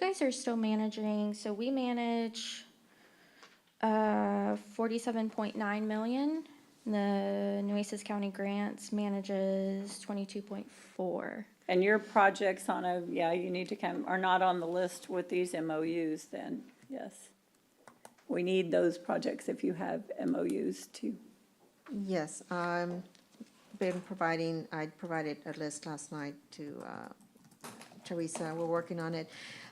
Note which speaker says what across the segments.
Speaker 1: guys are still managing, so we manage uh, 47.9 million. The Nueces County Grants manages 22.4.
Speaker 2: And your projects on a, yeah, you need to come, are not on the list with these MOUs then, yes. We need those projects if you have MOUs too.
Speaker 3: Yes, I'm been providing, I provided a list last night to uh, Teresa, we're working on it.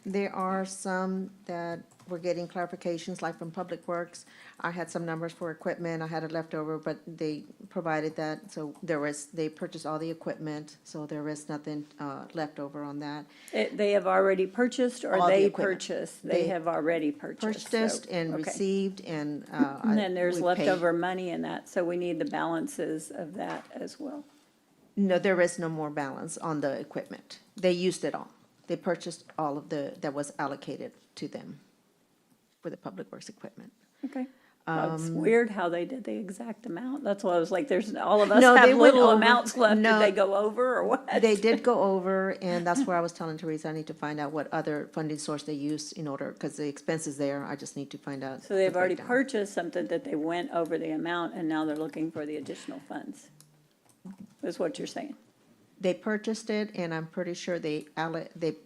Speaker 3: There are some that we're getting clarifications, like from Public Works. I had some numbers for equipment, I had it left over, but they provided that, so there was, they purchased all the equipment, so there is nothing uh, left over on that.
Speaker 2: It- eh, They have already purchased or
Speaker 3: All the
Speaker 2: they
Speaker 3: equipment.
Speaker 2: purchased? They
Speaker 3: They
Speaker 2: have already purchased. so-
Speaker 3: Purchased and
Speaker 2: okay.
Speaker 3: received and. uh,
Speaker 2: And then there's
Speaker 3: we paid.
Speaker 2: leftover money in that, so we need the balances of that as well.
Speaker 3: No, there is no more balance on the equipment. They used it all. They purchased all of the, that was allocated to them for the public works equipment.
Speaker 2: Okay.
Speaker 3: Um,
Speaker 2: It's weird how they did the exact amount. That's why I was like, there's, all of us
Speaker 3: No, they
Speaker 2: have
Speaker 3: went
Speaker 2: little
Speaker 3: over.
Speaker 2: amounts left. Did
Speaker 3: No.
Speaker 2: they go over or what?
Speaker 3: They did go over, and that's where I was telling Teresa, I need to find out what other funding source they used in order, because the expense is there, I just need to find out.
Speaker 2: So they've
Speaker 3: the
Speaker 2: already
Speaker 3: breakdown.
Speaker 2: purchased something that they went over the amount, and now they're looking for the additional funds, is what you're saying.
Speaker 3: They purchased it, and I'm pretty sure they alle, they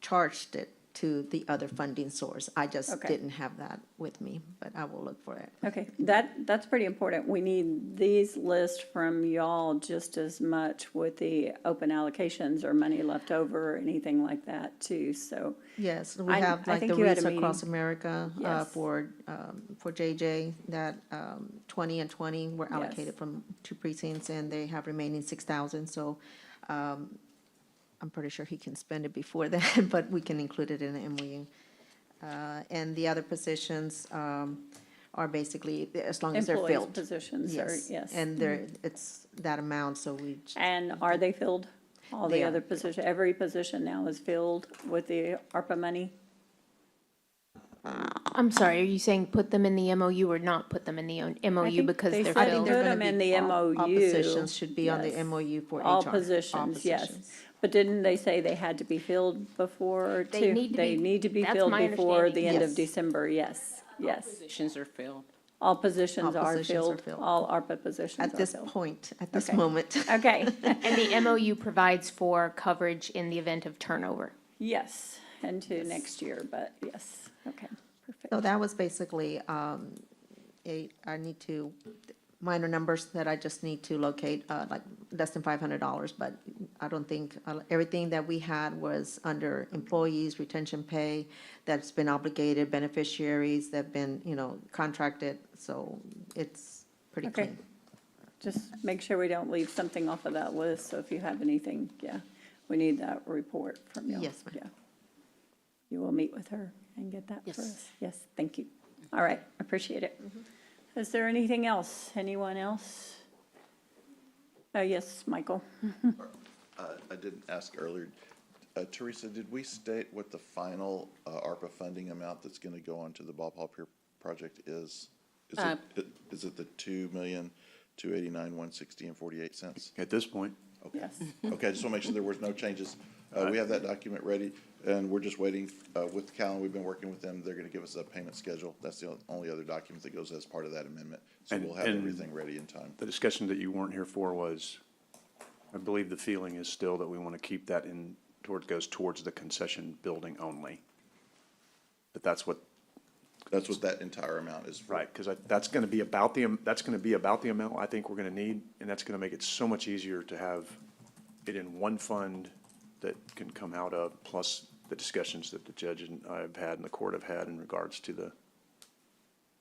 Speaker 3: charged it to the other funding source. I just
Speaker 2: Okay.
Speaker 3: didn't have that with me, but I will look for it.
Speaker 2: Okay, that, that's pretty important. We need these lists from y'all just as much with the open allocations or money left over or anything like that too, so.
Speaker 3: Yes, we
Speaker 2: I-
Speaker 3: have
Speaker 2: I
Speaker 3: like
Speaker 2: think
Speaker 3: the
Speaker 2: you had a
Speaker 3: Reach Across
Speaker 2: meeting.
Speaker 3: America uh,
Speaker 2: Yes.
Speaker 3: for, um, for JJ, that um, 20 and 20 were allocated
Speaker 2: Yes.
Speaker 3: from two precincts, and they have remaining 6,000, so um, I'm pretty sure he can spend it before that, but we can include it in the MOU. Uh, And the other positions um, are basically, as long as they're
Speaker 2: Employees'
Speaker 3: filled.
Speaker 2: positions are, yes. Mm-hmm.
Speaker 3: And they're, it's that amount, so we, j-
Speaker 2: And are they filled? All the
Speaker 3: They are
Speaker 2: other position, every position now is filled with the ARPA money?
Speaker 4: I'm sorry, are you saying put them in the MOU or not put them in the own- MOU
Speaker 2: think
Speaker 4: because
Speaker 2: they
Speaker 4: they're
Speaker 2: said
Speaker 3: I think
Speaker 4: filled?
Speaker 3: they're
Speaker 2: Put 'em
Speaker 3: going to
Speaker 2: in
Speaker 3: be,
Speaker 2: the
Speaker 3: all all
Speaker 2: MOU,
Speaker 3: positions should be on the
Speaker 2: yes.
Speaker 3: MOU for HR.
Speaker 2: All positions, yes.
Speaker 3: positions.
Speaker 2: But didn't they say they had to be filled before,
Speaker 4: They
Speaker 2: too?
Speaker 4: need to
Speaker 2: They
Speaker 4: be-
Speaker 2: need to be
Speaker 4: that's
Speaker 2: filled
Speaker 4: my
Speaker 2: before the
Speaker 4: understanding.
Speaker 2: end of
Speaker 3: Yes.
Speaker 2: December, yes, yes.
Speaker 5: Positions are filled.
Speaker 2: All positions
Speaker 3: All
Speaker 2: are
Speaker 3: positions are
Speaker 2: filled,
Speaker 3: filled.
Speaker 2: all ARPA positions
Speaker 3: At
Speaker 2: are
Speaker 3: this
Speaker 2: filled.
Speaker 3: point, at this
Speaker 2: Okay.
Speaker 3: moment.
Speaker 2: Okay,
Speaker 4: And the MOU provides for coverage in the event of turnover.
Speaker 2: yes, into next year, but yes, okay, perfect.
Speaker 3: So that was basically, um, a, I need to, minor numbers that I just need to locate, uh, like less than five hundred dollars, but I don't think, uh, everything that we had was under employees, retention pay, that's been obligated, beneficiaries that have been, you know, contracted, so it's pretty
Speaker 2: Okay.
Speaker 3: clean.
Speaker 2: Just make sure we don't leave something off of that list, so if you have anything, yeah, we need that report from you.
Speaker 3: Yes, ma'am.
Speaker 2: Yeah. You will meet with her and get that
Speaker 5: Yes.
Speaker 2: for us. Yes, thank you. All right, appreciate it.
Speaker 3: Mm-hmm.
Speaker 2: Is there anything else? Anyone else? Oh, yes, Michael.
Speaker 6: Uh, I didn't ask earlier. Uh, Teresa, did we state what the final uh, ARPA funding amount that's going to go onto the Bob Hope Pier project is? Is
Speaker 5: Uh,
Speaker 6: it, is it the two million, two eighty-nine, one sixty and forty-eight cents?
Speaker 7: At this point,
Speaker 2: Yes.
Speaker 6: Okay, I just want to make sure there was no changes. Uh, We have that document ready, and we're just waiting uh, with Callan. We've been working with them. They're going to give us a payment schedule. That's the only other document that goes as part of that amendment. So
Speaker 7: And-
Speaker 6: we'll have
Speaker 7: and-
Speaker 6: everything ready in time.
Speaker 7: the discussion that you weren't here for was, I believe the feeling is still that we want to keep that in, towards, goes towards the concession building only. But that's what,
Speaker 6: That's what that entire amount is for.
Speaker 7: right, because that's going to be about the, am- that's going to be about the amount I think we're going to need, and that's going to make it so much easier to have it in one fund that can come out of, plus the discussions that the judge and I have had and the court have had in regards to the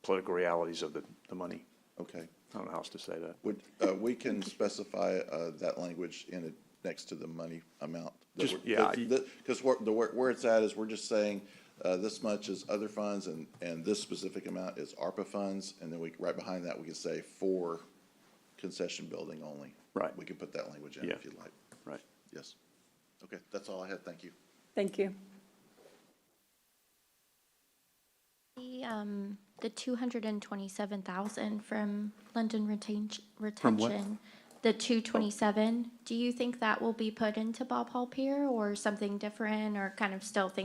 Speaker 7: political realities of the, the money.
Speaker 6: Okay.
Speaker 7: I don't know how else to say that.
Speaker 6: Would, uh, we can specify, uh, that language in it, next to the money amount. that
Speaker 7: Just-
Speaker 6: we're-
Speaker 7: yeah,
Speaker 6: that-
Speaker 7: you-
Speaker 6: that- Cause where, the, where, where it's at is we're just saying, uh, this much is other funds and, and this specific amount is ARPA funds. And then we, right behind that, we can say for concession building only.
Speaker 7: Right.
Speaker 6: We can put that language in
Speaker 7: Yeah.
Speaker 6: if you'd like.
Speaker 7: Right.
Speaker 6: Yes. Okay, that's all I had. Thank you.
Speaker 2: Thank you.
Speaker 1: The, um, the 227,000 from London retain-
Speaker 7: From what?
Speaker 1: retention. The 227, do you think that will be put into Bob Hall Pier or something different or kind of still thinking